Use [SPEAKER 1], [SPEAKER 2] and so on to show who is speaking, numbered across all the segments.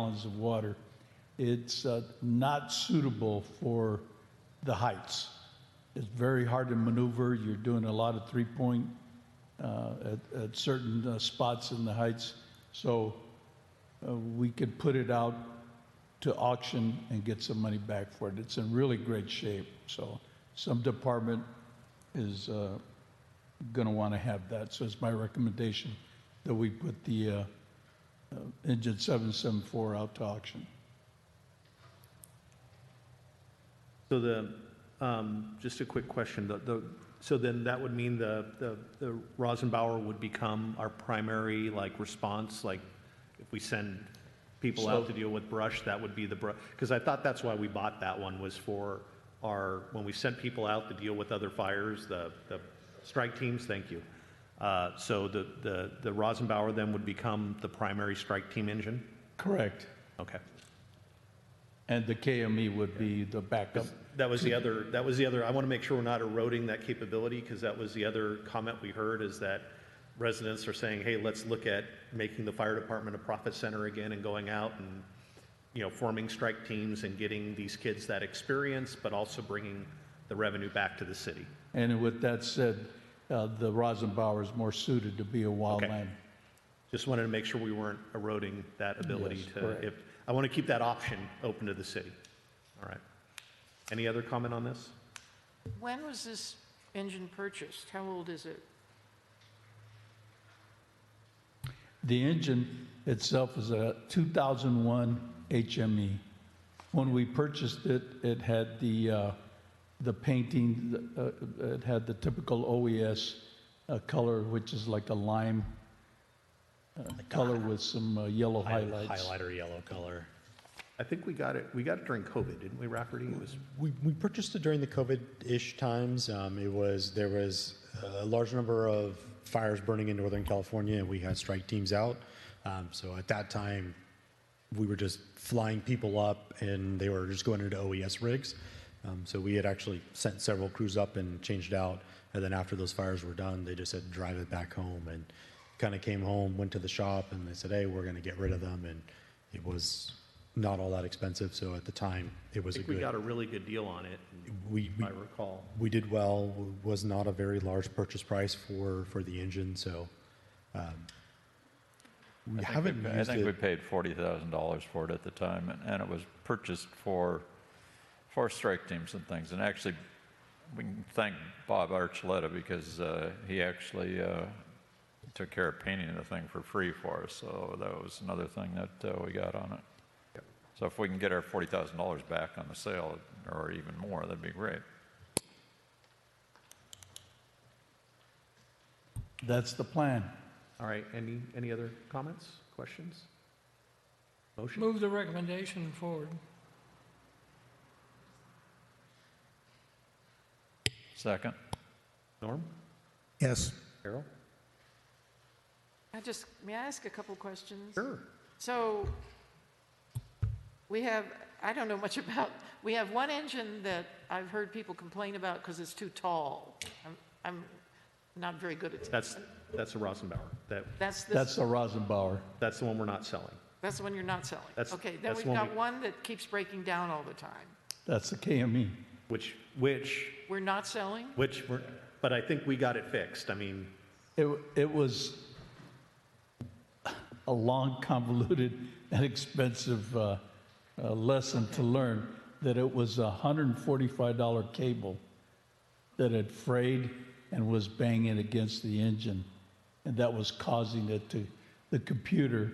[SPEAKER 1] gallons of water. It's uh, not suitable for the heights. It's very hard to maneuver. You're doing a lot of three-point uh, at, at certain uh, spots in the heights. So uh, we could put it out to auction and get some money back for it. It's in really great shape. So some department is uh, going to want to have that. So it's my recommendation that we put the uh, uh, engine 774 out to auction.
[SPEAKER 2] So the, um, just a quick question, the, the, so then that would mean the, the, the Rosenbauer would become our primary, like, response, like, if we send people out to deal with brush, that would be the brush, because I thought that's why we bought that one, was for our, when we sent people out to deal with other fires, the, the strike teams, thank you. Uh, so the, the, the Rosenbauer then would become the primary strike team engine?
[SPEAKER 1] Correct.
[SPEAKER 2] Okay.
[SPEAKER 1] And the KME would be the backup.
[SPEAKER 2] That was the other, that was the other, I want to make sure we're not eroding that capability, because that was the other comment we heard, is that residents are saying, hey, let's look at making the fire department a profit center again and going out and, you know, forming strike teams and getting these kids that experience, but also bringing the revenue back to the city.
[SPEAKER 1] And with that said, uh, the Rosenbauer is more suited to be a wildland.
[SPEAKER 2] Just wanted to make sure we weren't eroding that ability
[SPEAKER 1] Yes,
[SPEAKER 2] to,
[SPEAKER 1] correct.
[SPEAKER 2] if, I want to keep that option open to the city. All right. Any other comment on this?
[SPEAKER 3] When was this engine purchased? How old is it?
[SPEAKER 1] The engine itself is a 2001 HME. E. When we purchased it, it had the, uh, the painting, uh, it had the typical OES uh, color, which is like a lime uh, color with some uh, yellow highlights.
[SPEAKER 4] Highlighter yellow color.
[SPEAKER 2] I think we got it, we got it during COVID, didn't we, Rafferty? It was
[SPEAKER 4] We, we purchased it during the COVID-ish times. Um, it was, there was a large number of fires burning in Northern California and we had strike teams out. Um, so at that time, we were just flying people up and they were just going into OES rigs. Um, so we had actually sent several crews up and changed out. And then after those fires were done, they just said, drive it back home and kind of came home, went to the shop and they said, hey, we're going to get rid of them. And it was not all that expensive. So at the time, it was
[SPEAKER 2] I
[SPEAKER 4] a
[SPEAKER 2] think
[SPEAKER 4] good.
[SPEAKER 2] we got a really good deal on it,
[SPEAKER 4] we,
[SPEAKER 2] if
[SPEAKER 4] we,
[SPEAKER 2] I recall.
[SPEAKER 4] we did well, w- was not a very large purchase price for, for the engine, so, um, we
[SPEAKER 5] I think we
[SPEAKER 4] haven't
[SPEAKER 5] pa-
[SPEAKER 4] used
[SPEAKER 5] I think we
[SPEAKER 4] it.
[SPEAKER 5] paid forty thousand dollars for it at the time, and, and it was purchased for, for strike teams and things. And actually, we can thank Bob Archuleta because uh, he actually uh, took care of painting the thing for free for us. So that was another thing that uh, we got on it. So if we can get our forty thousand dollars back on the sale, or even more, that'd be great.
[SPEAKER 1] That's the plan.
[SPEAKER 2] All right, any, any other comments, questions? Motion?
[SPEAKER 6] Move the recommendation forward.
[SPEAKER 5] Second.
[SPEAKER 2] Norm?
[SPEAKER 7] Yes.
[SPEAKER 2] Carol?
[SPEAKER 3] I just, may I ask a couple questions?
[SPEAKER 2] Sure.
[SPEAKER 3] So we have, I don't know much about, we have one engine that I've heard people complain about because it's too tall. I'm, I'm not very good at,
[SPEAKER 2] That's, that's a Rosenbauer. That,
[SPEAKER 3] that's,
[SPEAKER 1] That's
[SPEAKER 3] this-
[SPEAKER 1] the Rosenbauer.
[SPEAKER 2] that's the one we're not selling.
[SPEAKER 3] that's the one you're not selling.
[SPEAKER 2] That's-
[SPEAKER 3] Okay, then
[SPEAKER 2] that's
[SPEAKER 3] we've
[SPEAKER 2] one
[SPEAKER 3] got
[SPEAKER 2] we-
[SPEAKER 3] one that keeps breaking down all the time.
[SPEAKER 1] That's the E. KME.
[SPEAKER 2] Which, which,
[SPEAKER 3] We're not selling?
[SPEAKER 2] which, we're- but I think we got it fixed. I mean,
[SPEAKER 1] It, it was a long, convoluted, and expensive uh, uh, lesson to learn that it was a $145 cable that had frayed and was banging against the engine. And that was causing it to, the computer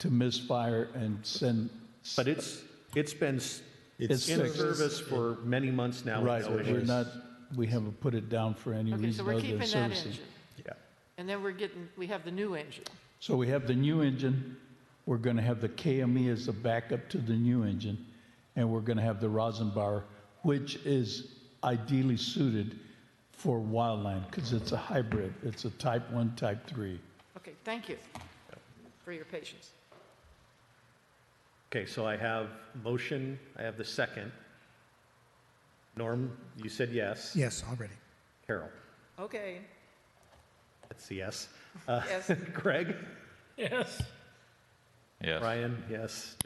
[SPEAKER 1] to misfire and send.
[SPEAKER 2] but it's, it's been s-
[SPEAKER 1] It's
[SPEAKER 2] in
[SPEAKER 1] fixed.
[SPEAKER 2] service for many months now. with
[SPEAKER 1] Right,
[SPEAKER 2] no
[SPEAKER 1] we're
[SPEAKER 2] issues.
[SPEAKER 1] not, we haven't put it down for any
[SPEAKER 3] Okay, so
[SPEAKER 1] reason
[SPEAKER 3] we're
[SPEAKER 1] other than servicing.
[SPEAKER 3] keeping that engine.
[SPEAKER 2] Yeah.
[SPEAKER 3] And then we're getting, we have the new engine.
[SPEAKER 1] So we have the new engine, we're going to have the KME as a backup to the new engine, and we're going to have the Rosenbauer, which is ideally suited for wildland, because it's a hybrid, it's a type 1, type 3.
[SPEAKER 3] Okay, thank you for your patience.
[SPEAKER 2] Okay, so I have motion, I have the second. Norm, you said yes.
[SPEAKER 7] Yes, already.
[SPEAKER 2] Carol,
[SPEAKER 3] Okay,
[SPEAKER 2] that's a yes. Uh,
[SPEAKER 3] yes.
[SPEAKER 2] Greg?
[SPEAKER 6] Yes.
[SPEAKER 5] Yes.
[SPEAKER 2] Ryan, yes.